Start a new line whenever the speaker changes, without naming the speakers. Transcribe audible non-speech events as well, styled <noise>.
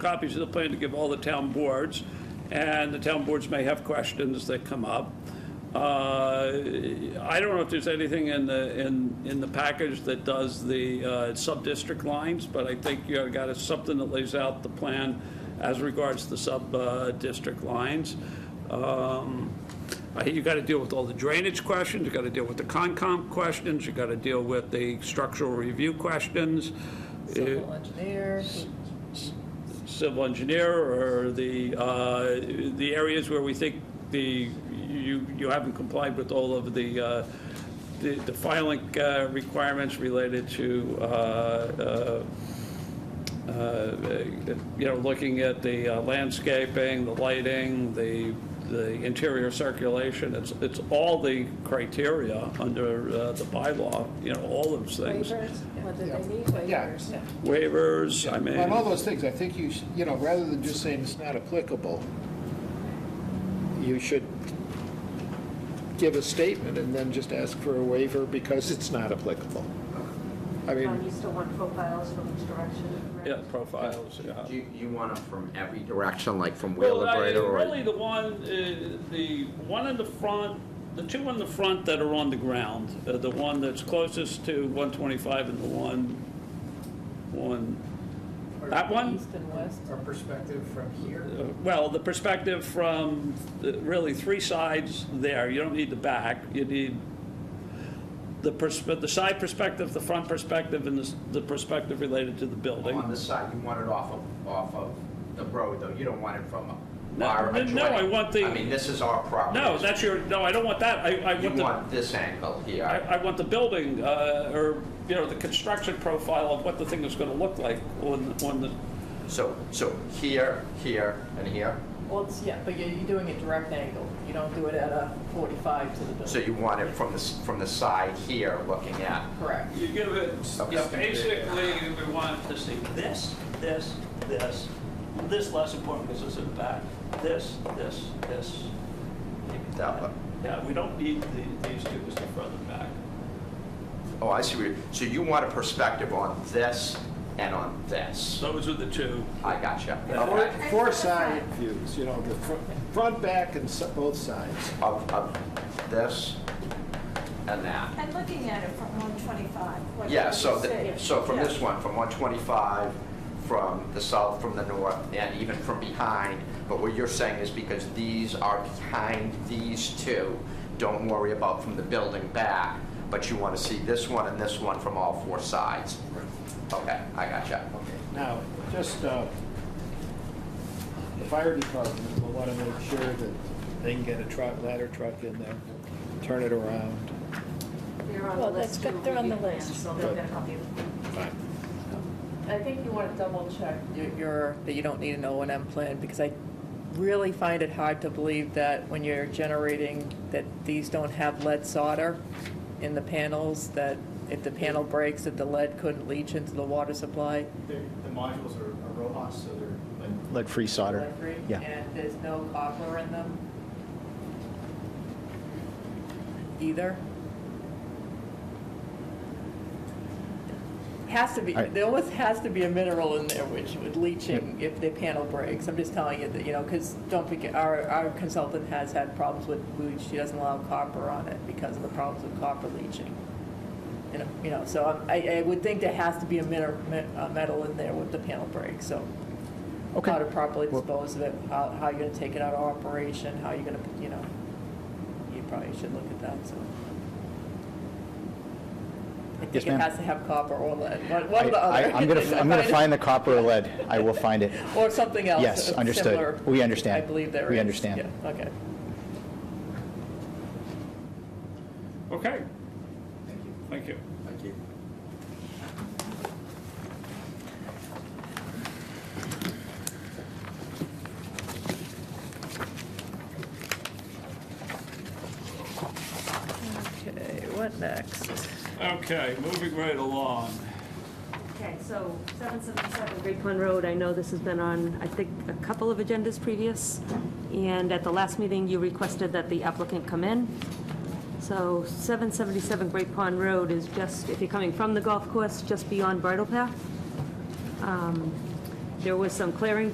copies of the plan to give all the town boards, and the town boards may have questions that come up. Uh, I don't know if there's anything in the, in, in the package that does the uh, sub-district lines, but I think you got a- something that lays out the plan as regards to sub-district lines. Um, I think you got to deal with all the drainage questions, you got to deal with the Concom questions, you got to deal with the structural review questions. Uh,
Civil engineer,
civil engineer or the, uh, the areas where we think the, you, you haven't complied with all of the, uh, the the filing uh, requirements related to, uh, uh, uh, you know, looking at the uh, landscaping, the lighting, the, the interior circulation, it's, it's all the criteria under uh, the bylaw, you know, all those things.
Waivers, whether
Yeah.
they need
Yeah.
waivers.
Waivers, I mean.
On all those things, I think you, should you know, rather than just saying it's not applicable, you should give a statement and then just ask for a waiver because it's not applicable. I
Um,
mean,
you still want profiles from each direction, right?
Yeah, profiles, yeah.
You, you want them from every direction, like from
Well,
Wheel
I-
of Brader or?
Really, the one, uh, the one in the front, the two in the front that are on the ground, uh, the one that's closest to 125 and the one, one, that one?
east and west.
Our perspective from here,
Uh, Well, the perspective from uh, really three sides there, you don't need the back, you need the perspe, the side perspective, the front perspective, and the s- the perspective related to the building.
Oh, On the side, you want it off of, off of the road, though, you don't want it from
No,
our
no,
adjoining.
no, I want the-
I mean, this is our property.
No, that's your, no, I don't want that, I, I
You
want the.
want this angle
I,
here.
I want the building, uh, or, you know, the construction profile of what the thing is gonna look like on, on the,
So, so here, here, and here.
Well, it's, yeah, but you're, you're doing a direct angle. You don't do it at a 45 to the building.
So you want it from the, s- from the side here, looking at.
Correct.
you give it,
Okay.
yeah, basically, we want to see this, this, this, this less important because it's in the back, this, this, this.
That look.
Yeah, we don't need the, these two as the front and back.
Oh, I see, what you- so you want a perspective on this and on this.
Those are the two.
I gotcha.
four-
Okay.
four side views, you know, the fr- front, back, and s- both sides.
Of, of this and that.
And looking at it from 125, what do you
Yeah, so, the-
see?
so from
Yeah.
this one, from 125, from the south, from the north, and even from behind, but what you're saying is because these are behind these two, don't worry about from the building back, but you want to see this one and this one from all four sides. Okay, I gotcha.
Now, just, uh, the fire department will want to make sure that they can get a truck, ladder truck in there, turn it around.
They're on the
Well, that's
list.
good.
too.
They're on the
Yeah,
list.
So they're gonna help you.
Fine.
I think you want to double check your- your, that you don't need an O and M plan, because I really find it hard to believe that when you're generating, that these don't have lead solder in the panels, that if the panel breaks, that the lead couldn't leach into the water supply.
They're- the modules are are robots, so they're like
Lead-free solder. Yeah.
And there's no copper in them? Either? Has to be,
All right.
there almost has to be a mineral in there which would leaching if the panel breaks. I'm just telling you that, you know, because don't forget, our, our consultant has had problems with, with- she doesn't allow copper on it because of the problems with copper leaching. You know- You know, so I, I would think there has to be a mineral, metal in there with the panel break, so how to properly dispose of it, how, how you're gonna take it out of operation, how you're gonna, you know, you probably should look at that, so. I
Yes,
think it
ma'am.
has to have copper or lead, one one
I-
or the
I-
other.
I'm going to,
<laughs>
I'm going to find the copper or lead. I will find it.
Or something else.
Yes,
that's
understood.
similar.
We understand.
I believe there is.
We understand.
Yeah, Okay.
Okay. Thank you.
Thank you.
Okay, what next?
Okay, moving right along.
Okay, so 777 Great Pond Road, I know this has been on, I think, a couple of agendas previous, and at the last meeting, you requested that the applicant come in. So 777 Great Pond Road is just, if you're coming from the golf course, just beyond Bridle Path. Um, There was some clearing